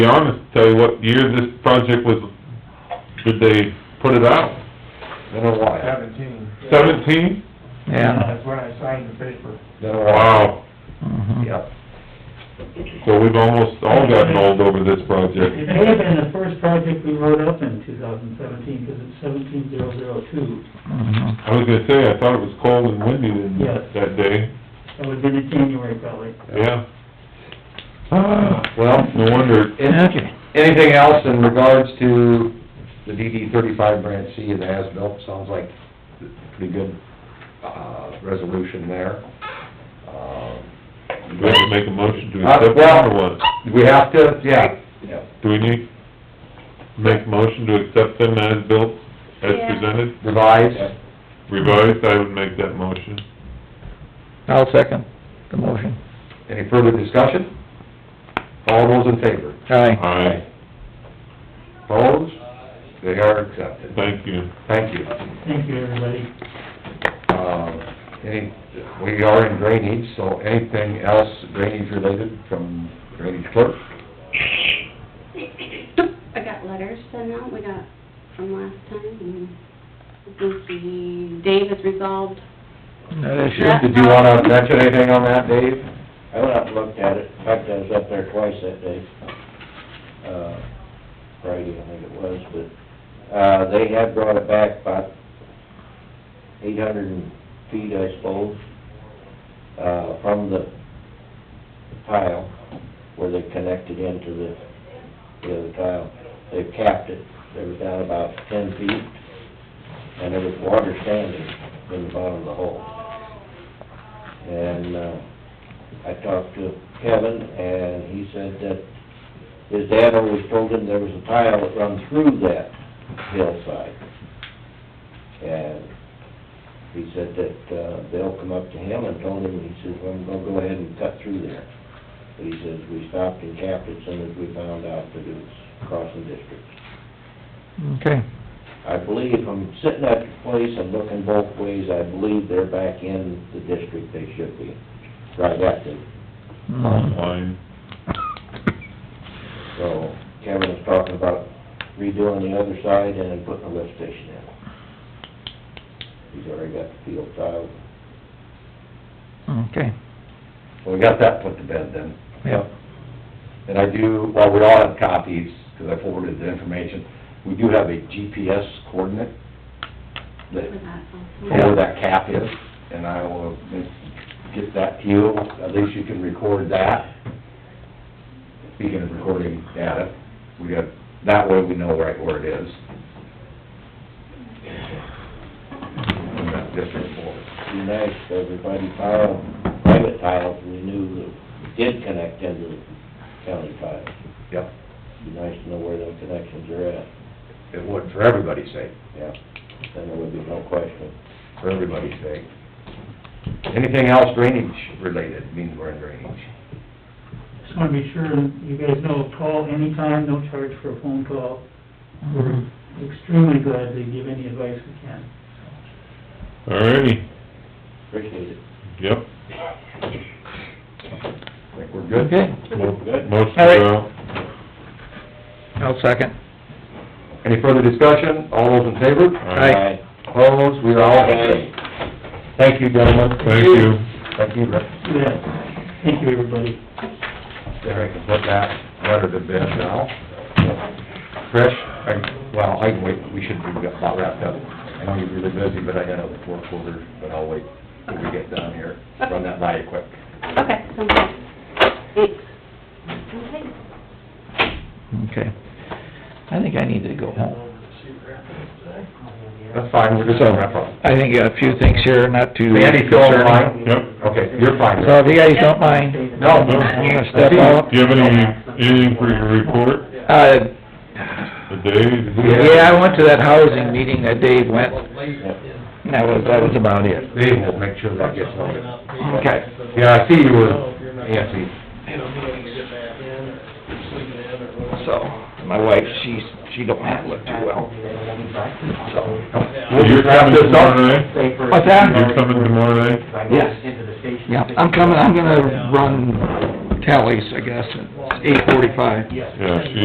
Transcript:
be honest, tell you what year this project was, did they put it out? Been a while, Seventeen. Seventeen? yeah. That's when I signed the paper. been a Wow, while, mhm. yep. so we've almost all gotten old over this It project. may have been the first project we wrote up in two thousand seventeen, because it's seventeen zero zero two. Mhm. I was gonna say, I thought it was cold and windy in- Yes. that day, That would've been in January probably. yeah. Well, No wonder, an- Okay, anything else in regards to the DD thirty-five branch C of the as-built, sounds like a pretty good, uh, resolution there. Um, do we have to make a motion to Uh, accept well- it or what? We have to, yeah, yeah, Do we need, make motion to accept them as built, as Yeah. presented, revise, revised? I would make that motion. I'll second the motion. any further discussion? All those in favor? Aye. Aye, Opposed? They are accepted. thank you. Thank you. Thank you, everybody. Um, any, we are in drainage, so anything else drainage related from drainage clerk? I got letters sent out, we got from last time, and I think he, Dave has resolved. That is Yeah. Did you wanna mention anything on that, Dave? I went up and looked at it, in fact, I was up there twice that day, uh, Friday, I think it was, but, uh, they had brought it back about eight hundred feet, I suppose, uh, from the tile where they connected into the, the other tile. They capped it, they were down about ten feet, and there was water standing in the bottom of the hole. And, uh, I talked to Kevin, and he said that his dad always told him there was a tile that run through that hillside. And he said that, uh, Bill come up to him and told him, he says, well, I'm gonna go ahead and cut through there. But he says, we stopped and capped it soon as we found out that it was crossing district. Okay, I believe, I'm sitting at the place and looking both ways, I believe they're back in the district they should be, right at the mhm. Line, So Kevin was talking about redoing the other side and then putting a lift station in. He's already got the field tile. okay, Well, we got that put to bed then. Yep. And I do, while we all have copies, because I forwarded the information, we do have a GPS coordinate that, with that also. for where that cap is, and I will get that to you, at least you can record that. Speaking of recording data, we got, that way we know right where it is. From that district board. Be nice if everybody tile, private tiles, we knew that did connect into the county tile. Yep, Be nice to know where those connections are at, it would, for everybody's sake. yeah. Then there would be no question. for everybody's sake. Anything else drainage related, means we're in drainage. Just wanna be sure, you guys know, call anytime, no charge for a phone call. We're extremely glad to give any advice we can. alrighty, Appreciate it. yep. I think we're good. Okay, Mo- Good. Motion All right. to go. I'll second. Any further discussion? All those in favor? Aye. Opposed? We are all in. Thank you, gentlemen. Thank you. Thank you, Rick. Yeah, thank you, everybody. There, I can put that letter to bed now. Trish, I, well, I can wait, we should be about wrapped up. I know you're really busy, but I got other work orders, but I'll wait till we get down here, run that by you quick. Okay, sounds good. Thanks. Okay. Okay. I think I need to go home. That's fine, we're just gonna wrap up. I think I got a few things here, not too... Andy, still on the line? concerning. Yep. Okay, you're fine. So if you guys don't mind, No. I'm gonna step out. Do you have any, anything for your report Uh, today? yeah, I went to that housing meeting that Dave went, and that was, that was about it. Dave will make sure that gets noted. Okay. Yeah, I see you were, Nancy. So, my wife, she's, she don't handle it too well, so... So You're coming tomorrow night? What's that? You're coming tomorrow night? Yeah, I'm coming, I'm gonna run Tellys, I guess, at eight forty-five. Yes. Yeah, she